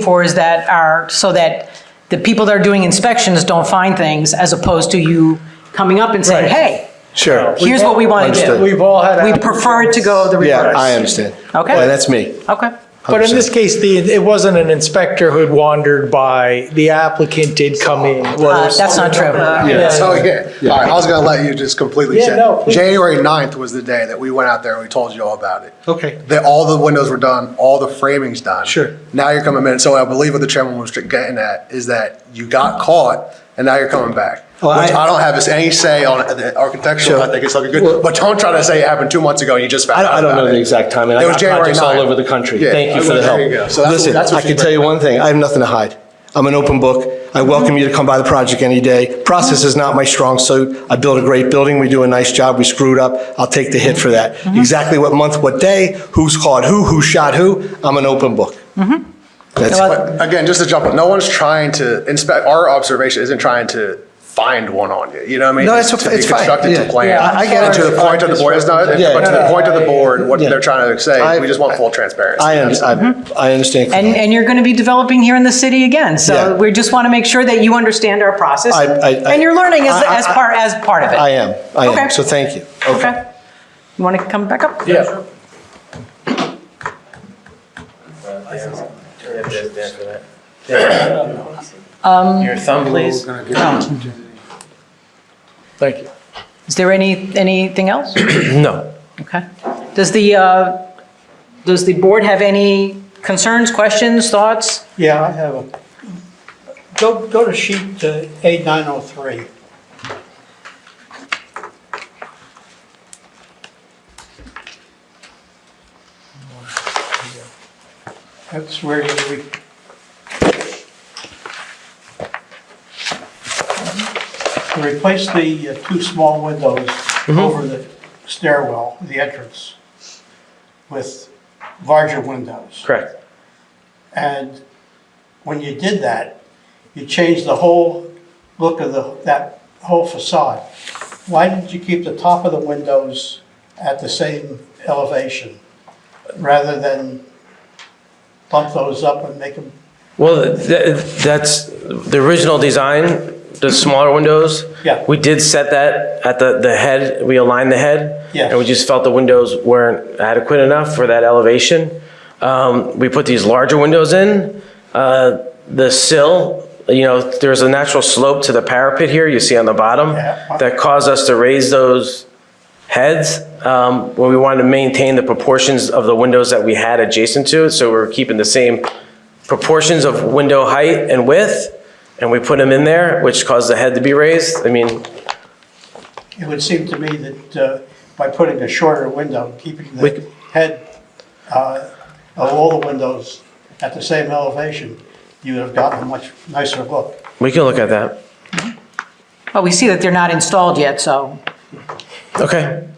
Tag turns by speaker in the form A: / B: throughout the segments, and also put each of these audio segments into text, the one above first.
A: for is that are, so that the people that are doing inspections don't find things as opposed to you coming up and saying,
B: Right.
A: hey,
C: Sure.
A: here's what we want to
C: Understood.
A: do.
B: We've all had.
A: We prefer it to go the
C: Yeah, I
A: reverse.
C: understand.
A: Okay.
C: Well, that's me.
A: Okay. uh,
B: But in this case, the, it wasn't an inspector who had wandered by, the applicant did come in.
A: Uh, That's not true.
B: Yeah.
D: So, yeah, all right, I was gonna let you just completely
B: Yeah,
D: say,
B: no, please.
D: January 9th was the day that we went out there and we told you all about it.
B: Okay.
D: That all the windows were done, all the framing's done.
B: Sure.
D: Now you're coming in, so I believe what the chairman was getting at is that you got caught and now you're coming back.
B: Well,
D: Which
B: I-
D: I don't have any say on the architectural, I think it's looking
C: Well-
D: good, but don't try to say it happened two months ago and you just
C: I
D: found
C: don't,
D: out
C: I don't know
D: about
C: the
D: it.
C: exact timing. I
D: It was
C: got
D: January
C: projects all
D: 9th.
C: over the country.
D: Yeah.
C: Thank you for the
D: There you go.
C: help.
D: So that's-
C: Listen,
D: that's what
C: I
D: she
C: can
D: brought
C: tell you
D: up.
C: one thing. I have nothing to hide. I'm an open book. I welcome you to come by the project any day. Process is not my strong suit. I built a great building. We do a nice job. We screwed up. I'll take the hit for that. Exactly what month, what day, who's called who, who shot who. I'm an open book. Mm-hmm. That's
A: Well,
C: it.
D: But again, just to jump on, no one's trying to inspect, our observation isn't trying to find one on you, you know what I mean?
C: No, it's-
D: to be
C: it's fine,
D: constructed to
C: yeah.
D: plan.
C: Yeah, I- I get
D: And
C: it.
D: To the point of the board, it's not, but
C: Yeah.
D: to the point of the board, what
C: Yeah.
D: they're trying to say,
C: I-
D: we just want full transparency.
C: I, under- I, I understand.
A: And, and you're going to be developing here in the city again. So
C: Yeah.
A: we just want to make sure that you understand our process.
C: I- I- I-
A: And you're learning as,
C: I- I-
A: as part, as part of it.
C: I am. I
A: Okay.
C: am. So thank you.
A: Okay. You want to come back up?
B: Yeah.
A: Um,
E: Your thumb, please.
B: Thank you.
A: Is there any, anything else?
B: No.
A: Okay. Does the, uh, does the board have any concerns, questions, thoughts?
F: Yeah, I have a, go, go to sheet uh, A903. That's where you, re- you replace the uh, two small windows over the stairwell, the entrance, with larger windows.
E: Correct.
F: And when you did that, you changed the whole look of the, that whole facade. Why did you keep the top of the windows at the same elevation rather than bump those up and make them,
E: Well, th- that's, the original design, the smaller windows.
F: Yeah.
E: We did set that at the, the head, we aligned the head.
F: Yes.
E: And we just felt the windows weren't adequate enough for that elevation. Um, we put these larger windows in. Uh, the sill, you know, there's a natural slope to the parapet here, you see on the bottom.
F: Yeah.
E: That caused us to raise those heads, um, where we wanted to maintain the proportions of the windows that we had adjacent to it, so we we're keeping the same proportions of window height and width, and we put them in there, which caused the head to be raised. I mean,
F: it would seem to me that uh, by putting a shorter window, keeping
E: We c-
F: the head uh, of all the windows at the same elevation, you would have gotten a much nicer look.
E: we can look at that.
A: Well, we see that they're not installed yet, so
E: Okay.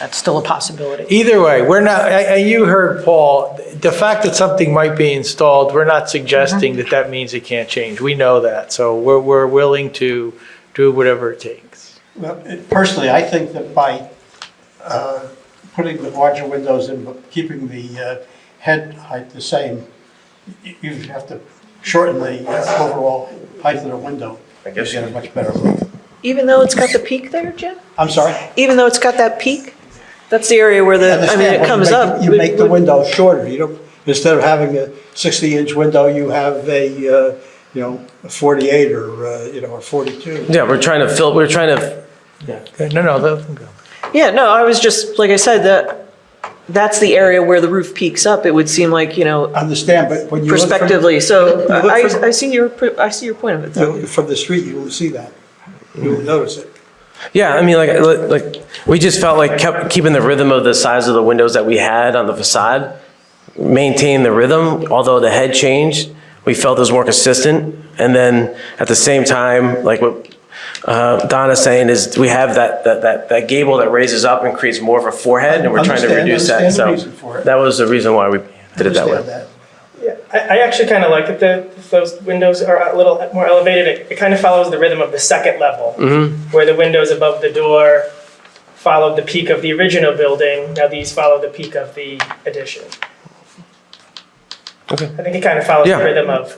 A: that's still a possibility.
B: Either way, we're not, and and you heard Paul, the fact that something might be installed, we're not suggesting
A: Mm-hmm.
B: that that means it can't change. We know that, so we're, we're willing to do whatever it takes.
F: Well, it- Personally, I think that by uh, putting the larger windows in, but keeping the uh, head height the same, you you have to shorten the uh, overall height of the window. I guess. You get a much better look.
G: Even though it's got the peak there, Jim?
F: I'm sorry?
G: Even though it's got that peak? That's the area where the, I mean,
F: Understand,
G: it
F: but you
G: comes
F: make-
G: up.
F: You make the window shorter, you don't, instead of having a 60-inch window, you have a, uh, you know, a 48 or, uh, you know, or 42.
E: Yeah, we're trying to fill, we're trying to,
B: Okay, No, no, let them go.
G: Yeah, no, I was just, like I said, that, that's the area where the roof peaks up, it would seem like, you know,
F: Understand, but when you look from-
G: prospectively, so
F: look
G: I,
F: from-
G: I see your, I see your point of it, though.
F: you- From the street, you will see that, you will notice it.
E: yeah, I mean, like, like, we just felt like kept keeping the rhythm of the size of the windows that we had on the facade, maintain the rhythm, although the head changed, we felt it was more consistent. And then at the same time, like what uh, Donna's saying is we have that, that, that, that gable that raises up and creates more of a forehead and we're trying to
F: Understand-
E: reduce that.
F: understand the
E: So
F: reason for it.
E: that was the reason why we did it that way.
F: Understand
H: Yeah, I, I actually kind of like that the, those windows are a little more elevated. It, it kind of follows the rhythm of the second level, where the windows above the door followed the peak of the original building. Now these follow the peak of the addition. I think it kind of follows the
E: Yeah.
H: rhythm of